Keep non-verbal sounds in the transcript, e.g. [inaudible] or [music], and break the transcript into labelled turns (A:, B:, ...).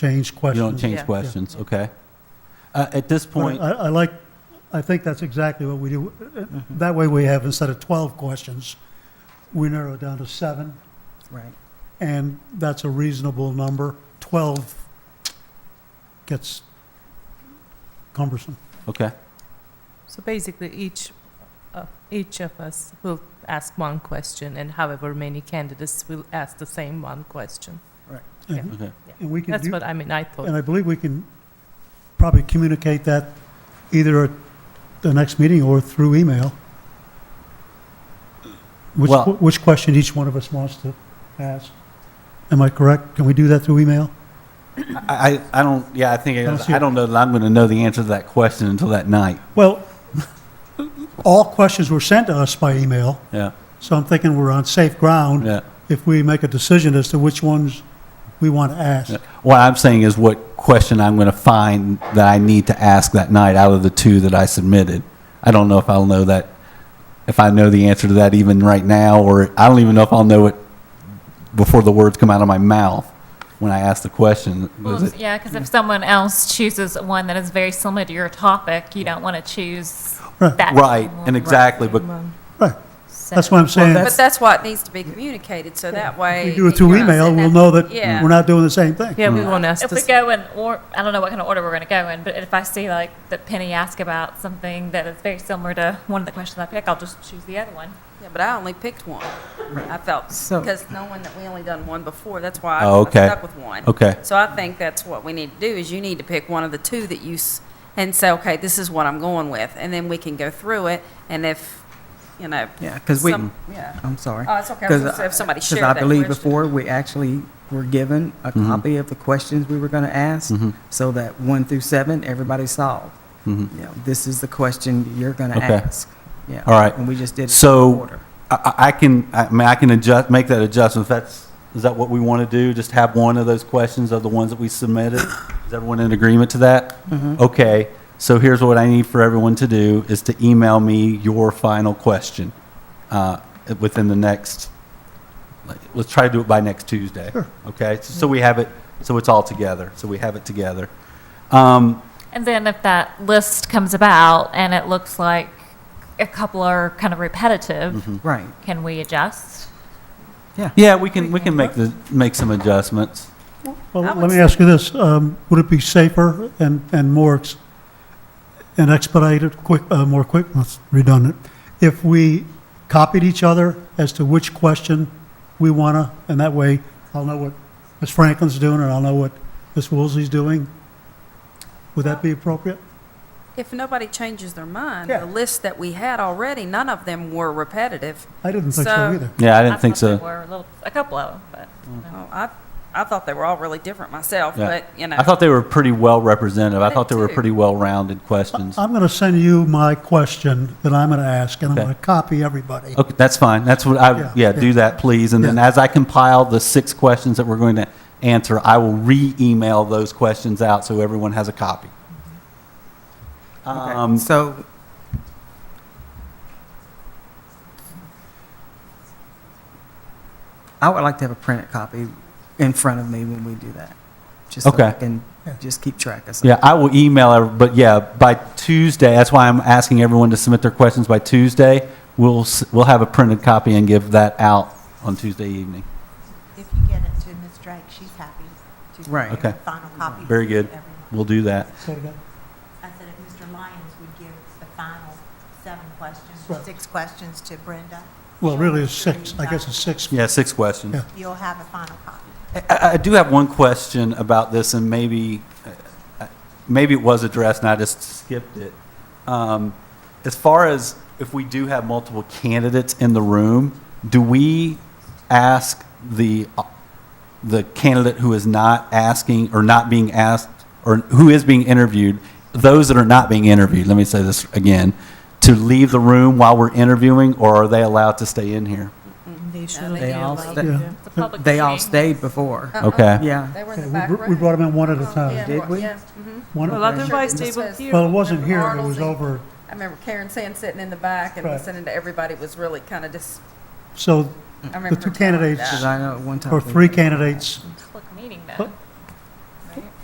A: change
B: You
A: questions.
B: don't change
C: Yeah.
B: questions, okay? Uh, At this
A: But
B: point,
A: I, I like, I think that's exactly what we do.
B: Mm-hmm.
A: That way we have, instead of 12 questions, we narrow it down to seven,
C: Right.
A: and that's a reasonable number. 12 gets cumbersome.
B: okay,
C: So basically, each, uh, each of us will ask one question, and however many candidates will ask the same one question.
A: And
B: okay.
A: and we can
C: That's
A: do,
C: what I mean, I
A: and
B: Oh.
C: thought.
A: I believe we can probably communicate that either at the next meeting or through email. Which,
B: Well-
A: which question each one of us wants to ask. Am I correct? Can we do that through email?
B: I, I I don't, yeah, I think,
A: Don't
B: it-
A: see
B: I
A: it.
B: don't know that I'm going to know the answer to that question until that night,
A: Well, [laughs] all questions were sent to us by email,
B: yeah,
A: so I'm thinking we're on safe ground
B: yeah.
A: if we make a decision as to which ones we want to ask.
B: Yeah. What I'm saying is what question I'm going to find that I need to ask that night out of the two that I submitted. I don't know if I'll know that, if I know the answer to that even right now, or I don't even know if I'll know it before the words come out of my mouth when I ask the question.
D: Well,
B: Is
D: if-
B: it-
D: yeah, because if someone else chooses one that is very similar to your topic, you don't want to choose
A: Right.
D: that.
B: Right,
D: one.
B: and exactly, but
C: Um,
A: Right,
D: So-
A: that's what I'm saying.
E: But that's why it needs to be communicated, so that way.
A: If we do it through
E: you know,
A: email,
E: send
A: we'll
E: that-
A: know that
E: Yeah.
A: we're not doing the same thing.
C: Yeah, we won't ask
D: If we
C: this.
D: go in, or, I don't know what kind of order we're going to go in, but if I see like that Penny asked about something that is very similar to one of the questions I pick, I'll just choose the other one.
E: Yeah, but I only picked one. I felt,
C: So-
E: because knowing that we only done one before, that's why I
B: Oh,
E: I
B: okay.
E: stuck with one.
B: Okay.
E: So I think that's what we need to do, is you need to pick one of the two that you, s- and say, okay, this is what I'm going with, and then we can go through it, and if, you know.
F: Yeah, because we,
E: some- Yeah.
F: I'm sorry.
E: Oh, it's okay. I was
F: 'Cause
E: gonna say if somebody
F: 'cause
E: shared that
F: I believe
E: question.
F: before, we actually were given a
B: Mm-hmm.
F: copy of the questions we were going to ask, so that one through seven, everybody saw. You know, this is the question you're going to
B: Okay.
F: ask. Yeah.
B: All right.
F: And we just did it in
B: So
F: order.
B: I- I, I can, I mean, I can adjust, make that adjustment. If That's, is that what we want to do? Just have one of those questions of the ones that we submitted? Is everyone in agreement to that?
F: Mm-hmm.
B: Okay, so here's what I need for everyone to do is to email me your final question uh, within the next, like, let's try to do it by next Tuesday.
A: Sure.
B: Okay, so so we have it, so it's all together, so we have it together. Um,
D: And then if that list comes about and it looks like a couple are kind of
B: Mm-hmm.
D: repetitive,
F: Right.
D: can we adjust?
B: Yeah, we can, we can make the, make some adjustments.
A: Well,
E: I
A: let
E: would
A: me
E: say-
A: ask you this, um, would it be safer and, and more, ex- and expedited, quick, uh, more quick, that's redundant, if we copied each other as to which question we wanna, and that way, I'll know what Ms. Franklin's doing, and I'll know what Ms. Woolsey's doing? Would that be appropriate?
E: If nobody changes their mind,
A: Yeah.
E: the list that we had already, none of them were repetitive.
A: I didn't think so
E: So-
A: either.
B: Yeah, I didn't think
D: thought
B: so.
D: there were a little- a couple of them, but.
E: Oh, I, I thought they were all really different myself,
B: Yeah.
E: but, you know.
B: I thought they were pretty well representative. I
E: I
B: thought they
E: did
B: were
E: too.
B: pretty well-rounded questions.
A: I'm gonna send you my question that I'm gonna ask, and I'm
B: Okay.
A: gonna copy everybody.
B: Okay, that's fine. That's what
A: Yeah,
B: I, yeah,
A: yeah.
B: do that, please. And then
A: Yeah.
B: as I compile the six questions that we're going to answer, I will re-email those questions out so everyone has a copy.
F: Okay.
B: Um,
F: so, I would like to have a printed copy in front of me when we do that, just so
B: Okay.
F: I can just keep track of.
B: Yeah, I will email, every- but yeah, by Tuesday, that's why I'm asking everyone to submit their questions by Tuesday. We'll, s- we'll have a printed copy and give that out on Tuesday evening.
G: If you get it to Ms. Drake, she's happy to.
F: Right.
G: give
B: Okay.
G: a Final copy.
B: Very
G: to
B: good.
G: everyone.
B: We'll do that.
A: Say it again.
G: I said if Mr. Lyons would give the final seven questions,
A: Right.
G: six questions to Brenda.
A: Well,
G: she'll
A: really,
G: make
A: it's
G: sure
A: six,
G: you've
A: I
G: got
A: guess
G: it.
A: it's six.
B: Yeah, six questions.
A: Yeah.
G: You'll have a final copy.
B: I- I, I do have one question about this, and maybe, uh, maybe it was addressed and I just skipped it. Um, As far as if we do have multiple candidates in the room, do we ask the, the candidate who is not asking or not being asked, or who is being interviewed, those that are not being interviewed, let me say this again, to leave the room while we're interviewing, or are they allowed to stay in here?
F: They all, sta-
A: Yeah.
D: It's a public
F: they all
D: meeting.
F: stayed before.
E: Uh-uh.
B: Okay.
F: Yeah.
E: They were in
A: Yeah,
E: the
A: we
E: back
A: br- we brought them in one at a
E: room. Oh,
A: time.
E: Yeah,
F: Did we?
E: yeah, mhm.
A: One at a
C: Well,
A: time.
C: otherwise
E: Sure,
C: they
E: this
C: will
E: was-
C: hear.
A: Well, it wasn't here, it
E: Arnold's
A: was
E: and-
A: over,
E: I remember Karen saying sitting in the back and
A: Right.
E: listening to everybody was really kind of just,
A: so
E: I remember.
A: the
E: her
A: two
E: telling me
A: candidadates,
E: that.
F: Because I know at one time.
A: or
F: we-
A: three candidates,
D: Public meeting
A: But-
D: though.